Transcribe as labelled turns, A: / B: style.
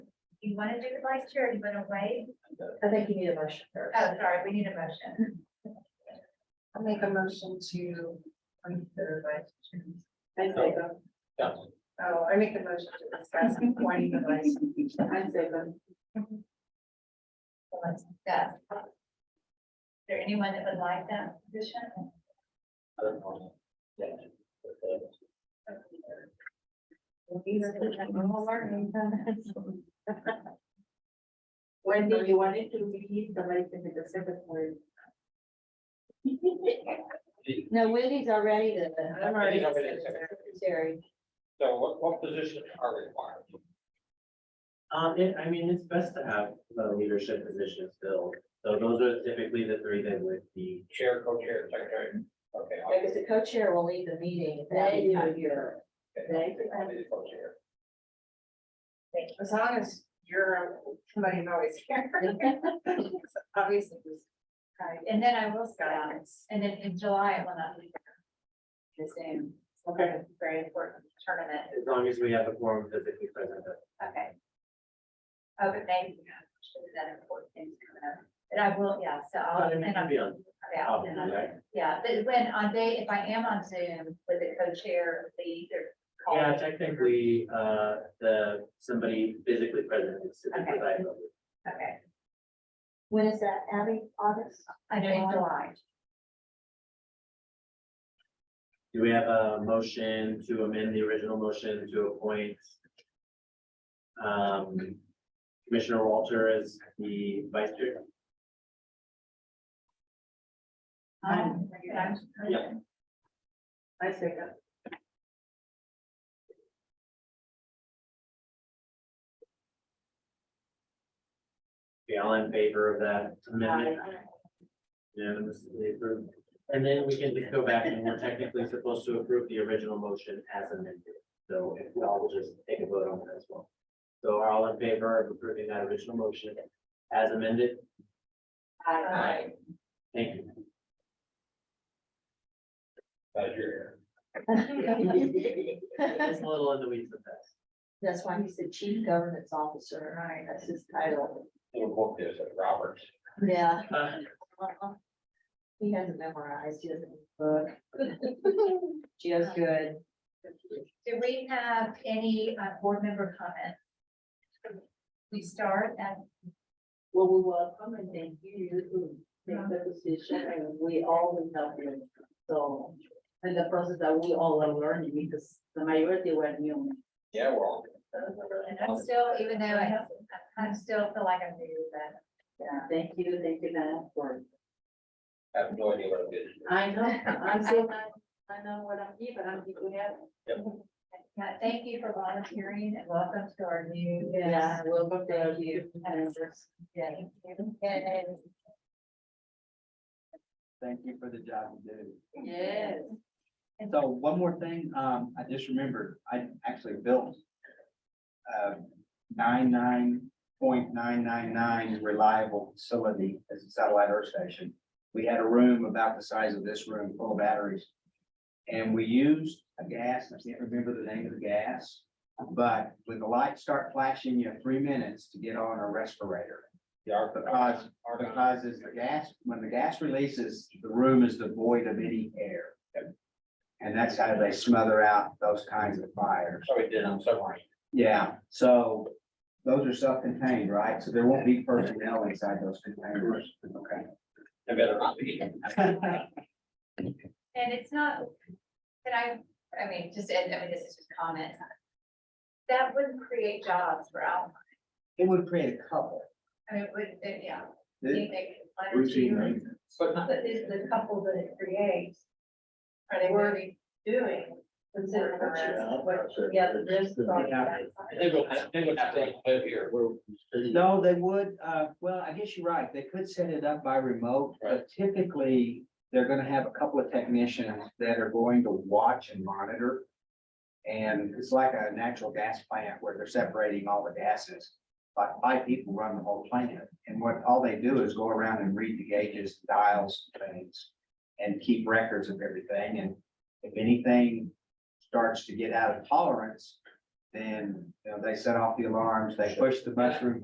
A: you want to do it like charity, but away,
B: I think you need a motion
A: oh,
B: first.
A: sorry, we need a motion.
B: I'll make a motion to consider vice chairman. I
C: say Yeah.
B: Oh, I make a motion to discuss appointing the vice. I say them.
A: So Let's discuss. Is there anyone that would like that position?
C: I don't know. Yeah.
B: Wendy, you wanted to leave the vice in the second word.
D: No, Wendy's already the
B: I'm already
C: Wendy's already secretary.
B: the
D: secretary.
C: So what, what positions are required?
E: Um, it, I mean, it's best to have the leadership positions filled, so those are typically the three that would be.
C: Chair, co-chair, secretary? Okay. I'll-
D: Because the co-chair will lead the meeting.
B: They do.
C: okay, I'll be the co-chair.
B: As long as you're, somebody's always here. Obviously, this
A: Right, and then I will stop,
B: guidance.
A: and then in July, it will not be
B: The same.
E: Okay.
A: very important tournament,
E: As long as we have a quorum physically present, that's
A: okay. Oh, but maybe, should that important things coming up, but I will, yeah, so I'll,
E: fine,
A: Uh, and
E: it
A: I'm,
E: can be on.
A: okay, I'll, and I'll- yeah, but when on day, if I am on Zoom with the co-chair, lead or. call
E: Yeah,
A: it-
E: technically, uh, the, somebody physically present is to be
A: Okay.
E: provided.
A: Okay,
D: When is that, Abby? August?
A: I know in July,
E: Do we have a motion to amend the original motion to appoint? Um, Commissioner Walter as the vice chair?
A: um,
B: Um,
A: I'm-
E: Yeah.
B: I say that.
E: Okay, all in favor of that amendment?
B: Aye.
E: Unanimously approved. And then we can just go back and we're technically supposed to approve the original motion as amended. So if we all will just take a vote on that as well. So are all in favor of approving that original motion as amended?
A: Aye.
E: Thank you.
C: Glad you're here.
E: It's a little in the weeds with that.
D: That's why he's the chief governance officer, right? That's his title.
C: Little book is at Roberts.
D: Yeah.
E: Uh,
D: He hasn't memorized, he doesn't book. Gio's good.
A: Do we have any uh, board member comment? We start at,
F: Well, we welcome and thank you to take the position and we all will help you. So, and the process that we all are learning because the majority were new.
C: Yeah, well,
A: and I'm still, even though I, I still feel like I'm new, but
F: Yeah, thank you, thank you, Nana, for.
C: I have no idea what it is.
F: I know, I'm so, I know what I'm here, but I'm here to help.
A: yeah, thank you for volunteering and welcome to our new. uh,
F: Yeah, we'll work there you. And just,
A: Yeah. And
G: Thank you for the job you do.
F: yes.
G: So one more thing, um, I just remembered, I actually built nine nine point nine nine nine reliable facility as a satellite earth station. We had a room about the size of this room full of batteries. And we used a gas, I can't remember the name of the gas, but when the lights start flashing, you have three minutes to get on a respirator.
C: The arg-
G: Because-
C: argon-
G: Because as the gas, when the gas releases, the room is devoid of any air. And that's how they smother out those kinds of fires.
C: So we did on submarine.
G: Yeah, so those are self-contained, right? So there won't be personnel inside those containers. Okay.
C: It better not be.
A: and it's not, that I, I mean, just, I mean, this is just comment. That wouldn't create jobs for Alpine.
G: It would create a couple.
A: I mean, would, it- yeah.
G: It-
A: you think letter
G: routine
A: to-
G: maintenance.
C: But not,
A: But is the couple that it creates? Are they worthy doing? Considering the rest, what, yeah, but there's.
C: they would, they would have to live here.
G: No, they would, uh, well, I guess you're right. They could set it up by remote, but typically they're gonna have a couple of technicians that are going to watch and monitor. And it's like a natural gas plant where they're separating all the gases. Like five people run the whole plant and what, all they do is go around and read the gauges, dials, things. And keep records of everything. And if anything starts to get out of tolerance, then, you know, they set off the alarms, they push the mushroom